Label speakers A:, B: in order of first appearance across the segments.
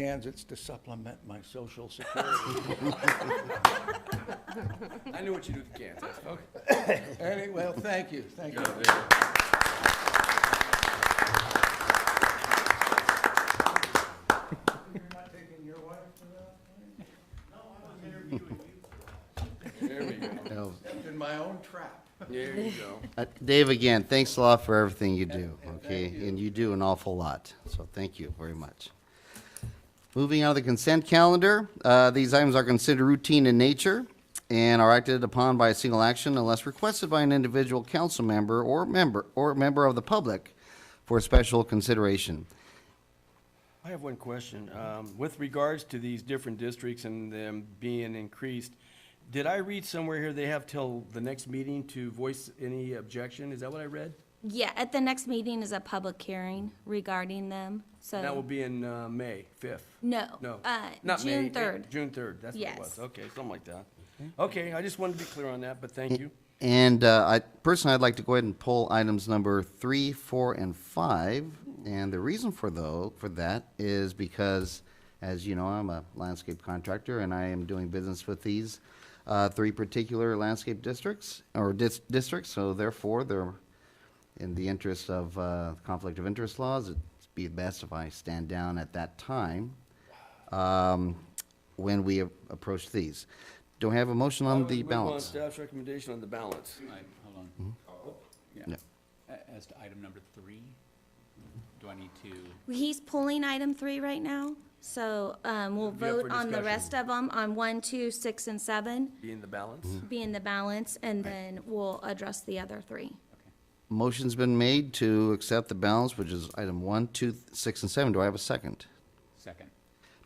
A: Kansas to supplement my social security.
B: I knew what you do with cans. That's fine.
A: Anyway, well, thank you, thank you.
B: No, there-
A: You're not taking your wife to that?
B: There we go.
C: No.
A: Stepped in my own trap.
B: There you go.
C: Uh, Dave, again, thanks a lot for everything you do,
A: And- and
C: okay?
A: thank you.
C: And you do an awful lot, so thank you very much. Moving on to the consent calendar, uh, these items are considered routine in nature and are acted upon by a single action unless requested by an individual council member or member, or member of the public for special consideration.
B: I have one question. Um, With regards to these different districts and them being increased, did I read somewhere here they have till the next meeting to voice any objection? Is that what I read?
D: Yeah, at the next meeting is a public hearing regarding them, so.
B: That will be in uh, May 5th?
D: No,
B: No.
D: uh,
B: not May,
D: June
B: eh,
D: 3rd.
B: June 3rd, that's what it
D: Yes.
B: was. Okay, something like that. Okay, I just wanted to be clear on that, but thank you.
C: And uh, I, personally, I'd like to go ahead and pull items number three, four, and five. And the reason for though, for that is because, as you know, I'm a landscape contractor and I am doing business with these uh, three particular landscape districts, or dis- districts, so therefore, they're in the interest of uh, conflict of interest laws, it'd be best if I stand down at that time um, when we a- approach these. Do I have a motion
B: I
C: on
B: would
C: the
B: move on
C: balance?
B: Staff's recommendation on the balance.
E: I- Hold on.
C: No.
E: Yeah. A- As to item number three, do I need to,
D: He's pulling item three right now, so, um, we'll
B: Be up for
D: vote on the
B: discussion.
D: rest of them, on one, two, six, and seven,
B: Be in the balance?
D: being the balance, and then we'll address the other three.
C: Motion's been made to accept the balance, which is item one, two, six, and seven. Do I have a second?
E: second?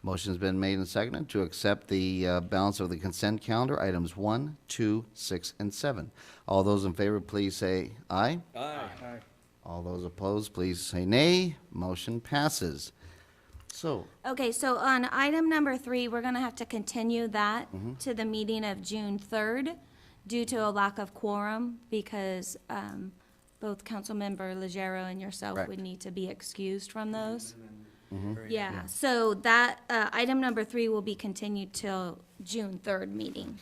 C: Motion's been made and seconded to accept the uh, balance of the consent calendar, items one, two, six, and seven. All those in favor, please say aye.
B: Aye.
C: All those opposed, please say nay. Motion passes. So,
D: Okay, so on item number three, we're gonna have to continue that to the meeting of June third due to a lack of quorum, because, um, both Councilmember Legero and yourself
C: Correct.
D: would need to be excused from those. Yeah, so that, uh, item number three will be continued till June third meeting.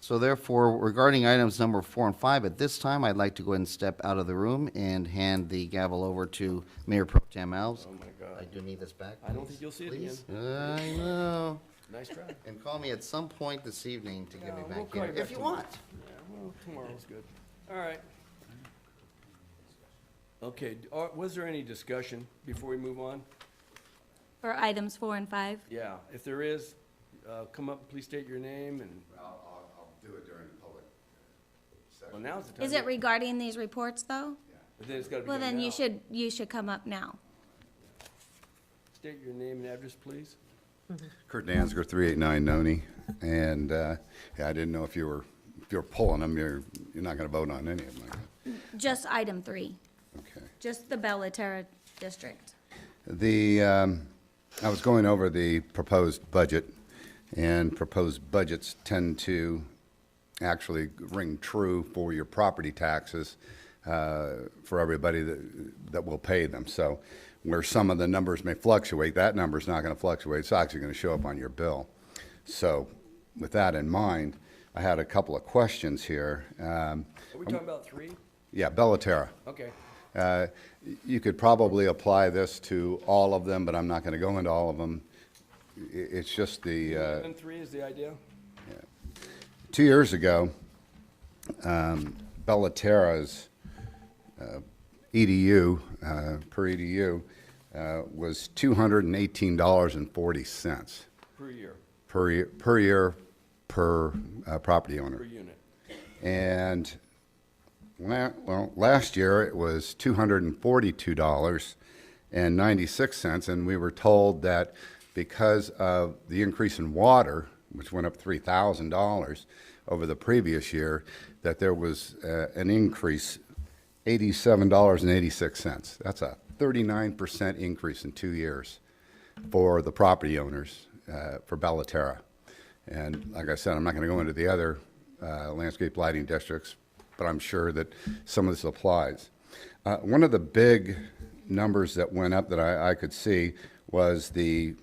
C: so therefore, regarding items number four and five, at this time, I'd like to go ahead and step out of the room and hand the gavel over to Mayor Pro Tem Alves.
B: Oh, my
C: I
B: God.
C: do need this back.
B: I don't
C: please.
B: think you'll see it again.
C: Please? I know.
B: Nice try.
C: And call me at some point this evening to get me
B: No, we'll
C: back
B: call
C: in,
B: you back
C: if you
B: tomorrow.
C: want.
B: Yeah, well, tomorrow's good. All right. Okay, d- are- was there any discussion before we move on?
D: For items four and five?
B: Yeah, if there is, uh, come up, please state your name and. I'll, I'll, I'll do it during the public. Well, now's the time.
D: Is it regarding these reports, though?
B: But Then it's gotta be
D: Well,
B: done
D: then you
B: now.
D: should, you should come up now.
B: State your name and address, please.
F: Kurt Danziger, 389 Noni, and uh, yeah, I didn't know if you were, if you were pulling them, you're, you're not going to vote on any of them,
D: Just item three,
F: okay.
D: just the Bellaterra district.
F: The, um, I was going over the proposed budget, and proposed budgets tend to actually ring true for your property taxes uh, for everybody that, that will pay them. So where some of the numbers may fluctuate, that number's not going to fluctuate, it's actually going to show up on your bill. So with that in mind, I had a couple of questions here. Um,
B: Are we talking about three?
F: Yeah, Bellaterra.
B: Okay.
F: Uh, You could probably apply this to all of them, but I'm not going to go into all of them. I- It's just the, uh,
B: And three is the idea?
F: two years ago, um, Bellaterra's uh, EDU, uh, per EDU, uh, was $218.40
B: Per year,
F: per year, per year, per uh, property owner.
B: per unit.
F: And, la- well, last year it was $242.96, and we were told that because of the increase in water, which went up $3,000 over the previous year, that there was uh, an increase, $87.86. That's a 39% increase in two years for the property owners uh, for Bellaterra. And like I said, I'm not going to go into the other uh, landscape lighting districts, but I'm sure that some of this applies. Uh, One of the big numbers that went up that I I could see was the